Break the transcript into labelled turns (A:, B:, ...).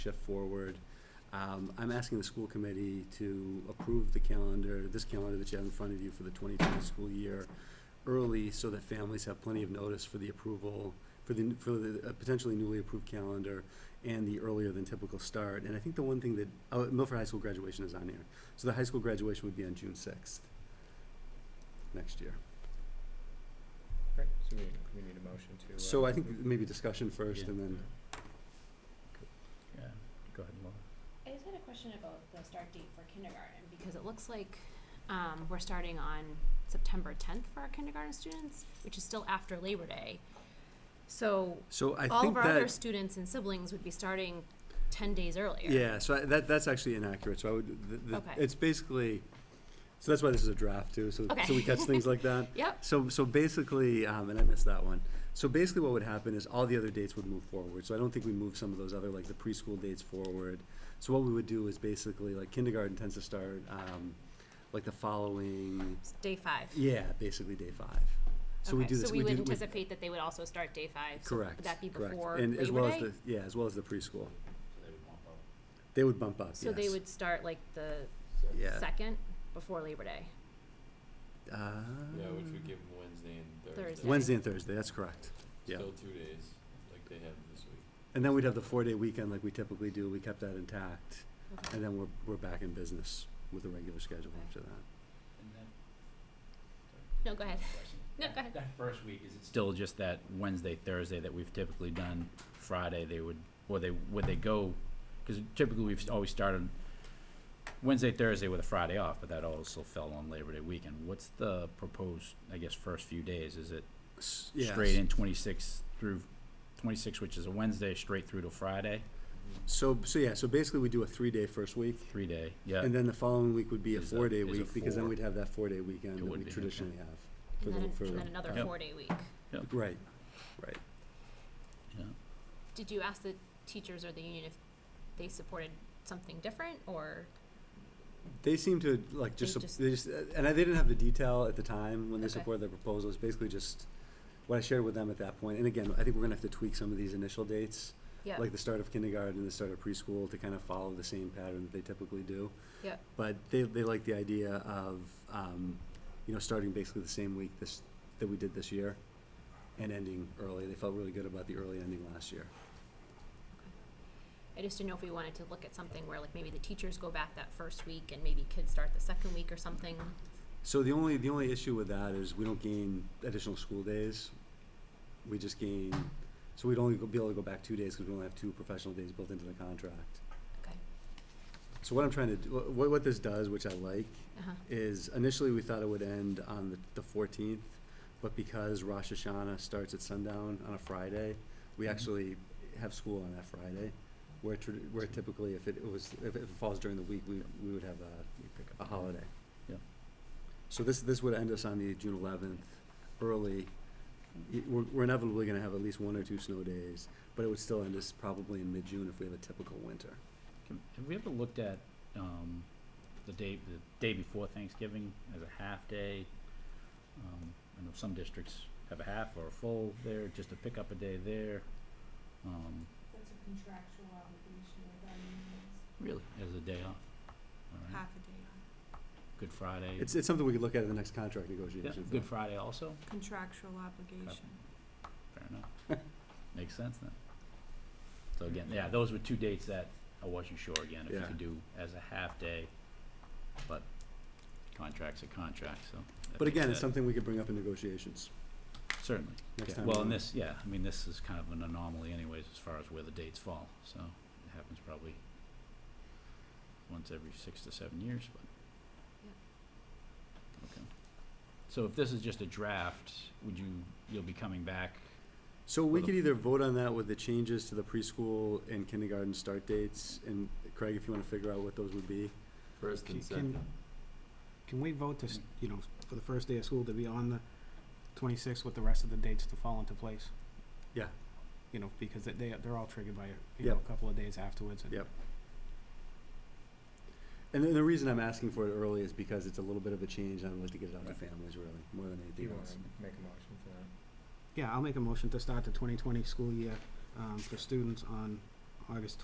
A: shift forward. Um, I'm asking the school committee to approve the calendar, this calendar that you have in front of you for the 2020 school year early so that families have plenty of notice for the approval, for the, for the uh, potentially newly approved calendar and the earlier than typical start. And I think the one thing that, oh, Milford High School graduation is on here. So the high school graduation would be on June 6th next year.
B: Right, so we, we need a motion to. uh,
A: So I think maybe discussion first and then
C: Yeah, go ahead, Laura.
D: I just had a question about the start date for kindergarten, because it looks like, um, we're starting on September tenth for our kindergarten students, which is still after Labor Day. So,
A: So I
D: all
A: think
D: of our other
A: that,
D: students and siblings would be starting ten days earlier.
A: yeah, so I- that, that's actually inaccurate, so I would, the, the,
D: Okay.
A: it's basically, so that's why this is a draft too, so, so we
D: Okay.
A: catch things like that.
D: Yep,
A: So, so basically, um, and I missed that one. So basically what would happen is all the other dates would move forward, so I don't think we move some of those other, like the preschool dates forward. So what we would do is basically, like kindergarten tends to start, um, like the following,
D: it's day five.
A: yeah, basically day five. So we
D: Okay,
A: do this, we
D: So we would
A: do, we,
D: anticipate that they would also start day five, so
A: correct,
D: would that be
A: correct.
D: before Labor Day?
A: And as well as the, yeah, as well as the preschool. They would bump up, yes.
D: So they would start like the
A: Yeah.
D: second, before Labor Day,
A: Uh,
C: Ah.
E: Yeah, which would give them Wednesday and Thursday.
D: Thursday.
A: Wednesday and Thursday, that's correct. yeah.
E: Still two days, like they have this week.
A: And then we'd have the four-day weekend like we typically do, we kept that intact,
D: okay.
A: and then we're, we're back in business with a regular schedule
D: Okay.
A: after that.
D: No, go ahead. No, go ahead.
C: That first week, is it still just that Wednesday, Thursday that we've typically done? Friday, they would, or they, would they go, because typically we've always started Wednesday, Thursday with a Friday off, but that also fell on Labor Day weekend. What's the proposed, I guess, first few days? Is it
A: S- yeah,
C: straight in twenty-six through, twenty-six, which is a Wednesday, straight through to Friday?
A: So, so yeah, so basically we do a three-day first week,
C: Three-day, yeah.
A: and then the following week would be a
C: Is a-
A: four-day
C: is a
A: week, because then
C: four.
A: we'd have that four-day weekend
C: It
A: that
C: would
A: we
C: be, okay.
A: traditionally have. for
D: And
A: the-
D: then, an-
A: for-
D: and then another
C: Yep.
D: four-day week.
C: Yep.
A: Right,
C: Yeah.
D: Did you ask the teachers or the union if they supported something different or?
A: They seem to like just,
D: They
A: sup-
D: just-
A: they just, and I, they didn't have the detail at the time when they
D: Okay.
A: supported their proposal. It's basically just what I shared with them at that point. And again, I think we're gonna have to tweak some of these initial dates,
D: Yeah.
A: like the start of kindergarten and the start of preschool to kind of follow the same pattern that they typically do.
D: Yeah.
A: But they, they like the idea of, um, you know, starting basically the same week this, that we did this year and ending early. They felt really good about the early ending last year.
D: I just didn't know if we wanted to look at something where like maybe the teachers go back that first week and maybe kids start the second week or something.
A: So the only, the only issue with that is we don't gain additional school days. We just gain, so we'd only go- be able to go back two days because we only have two professional days built into the contract.
D: Okay.
A: So what I'm trying to, do, what, what this does, which I like,
D: Uh-huh.
A: is initially we thought it would end on the, the fourteenth, but because Rosh Hashanah starts at sundown on a Friday, we
C: Mhm.
A: actually have school on that Friday. Where tr- where typically if it was, if it falls during the week, we, we would have a,
C: You pick up
A: a
C: the-
A: holiday.
C: Yeah.
A: So this, this would end us on the June eleventh, early. Y- We're, we're inevitably gonna have at least one or two snow days, but it would still end us probably in mid-June if we have a typical winter.
C: Can- Have we ever looked at, um, the day, the day before Thanksgiving as a half day? Um, I know some districts have a half or a full there, just to pick up a day there, um,
F: That's a contractual obligation with our unions,
C: really, as a day off. All right,
F: half a day off.
C: Good Friday.
A: It's, it's something we could look at in the next contract
C: Yeah,
A: negotiations.
C: Good Friday also,
F: Contractual obligation.
C: fair enough. Makes sense then. So again, yeah, those were two dates that I wasn't sure again, if you
A: Yeah.
C: could do as a half day, but contracts are contracts, so. that
A: But
C: makes
A: again, it's
C: sense.
A: something we could bring up in negotiations
C: Certainly.
A: next
C: Yeah,
A: time.
C: Well,
A: around.
C: and this, yeah, I mean, this is kind of an anomaly anyways, as far as where the dates fall, so it happens probably once every six to seven years, but. Okay. So if this is just a draft, would you, you'll be coming back,
A: So we
C: for the-
A: could either vote on that with the changes to the preschool and kindergarten start dates, and Craig, if you wanna figure out what those would be.
E: First and second.
G: Can we vote to, s- you know, for the first day of school to be on the twenty-sixth with the rest of the dates to fall into place?
A: Yeah.
G: You know, because they- they, they're all triggered by, you
A: Yep.
G: know, a couple of days afterwards and.
A: Yep. And then the reason I'm asking for it early is because it's a little bit of a change, and I'd like to get it out to
C: Right.
A: families really, more than
B: Do you
A: anything
B: wanna
A: else.
B: make a motion for that?
G: Yeah, I'll make a motion to start the twenty twenty school year, um, for students on August